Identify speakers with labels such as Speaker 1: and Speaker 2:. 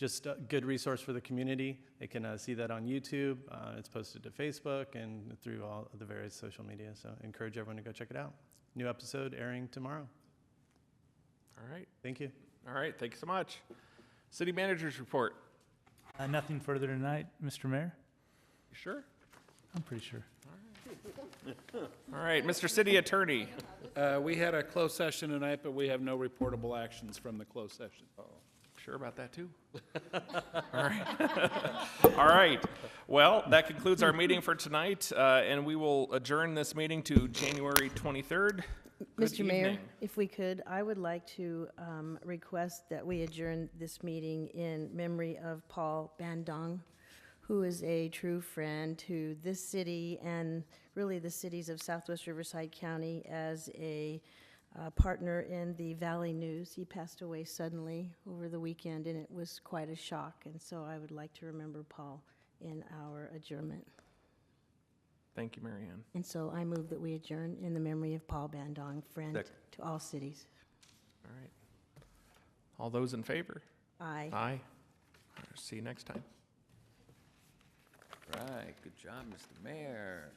Speaker 1: just a good resource for the community. They can uh, see that on YouTube. Uh, it's posted to Facebook and through all of the various social media. So encourage everyone to go check it out. New episode airing tomorrow.
Speaker 2: All right,
Speaker 1: Thank you.
Speaker 2: all right, thank you so much. City managers report.
Speaker 3: Uh, Nothing further tonight, Mr. Mayor?
Speaker 2: You sure?
Speaker 3: I'm pretty sure.
Speaker 2: All right, Mr. City Attorney.
Speaker 4: Uh, We had a closed session tonight, but we have no reportable actions from the closed session.
Speaker 2: Sure about that too? All right. All right. Well, that concludes our meeting for tonight, uh, and we will adjourn this meeting to January 23rd. Good
Speaker 5: Mr. Mayor,
Speaker 2: evening.
Speaker 5: if we could, I would like to um, request that we adjourn this meeting in memory of Paul Bandong, who is a true friend to this city and really the cities of Southwest Riverside County as a uh, partner in the Valley News. He passed away suddenly over the weekend, and it was quite a shock. And so I would like to remember Paul in our adjournment.
Speaker 2: Thank you, Marianne.
Speaker 5: And so I move that we adjourn in the memory of Paul Bandong, friend
Speaker 2: Second.
Speaker 5: to all cities.
Speaker 2: All right. All those in favor?
Speaker 5: Aye.
Speaker 2: Aye. See you next time.
Speaker 6: Right, good job, Mr. Mayor.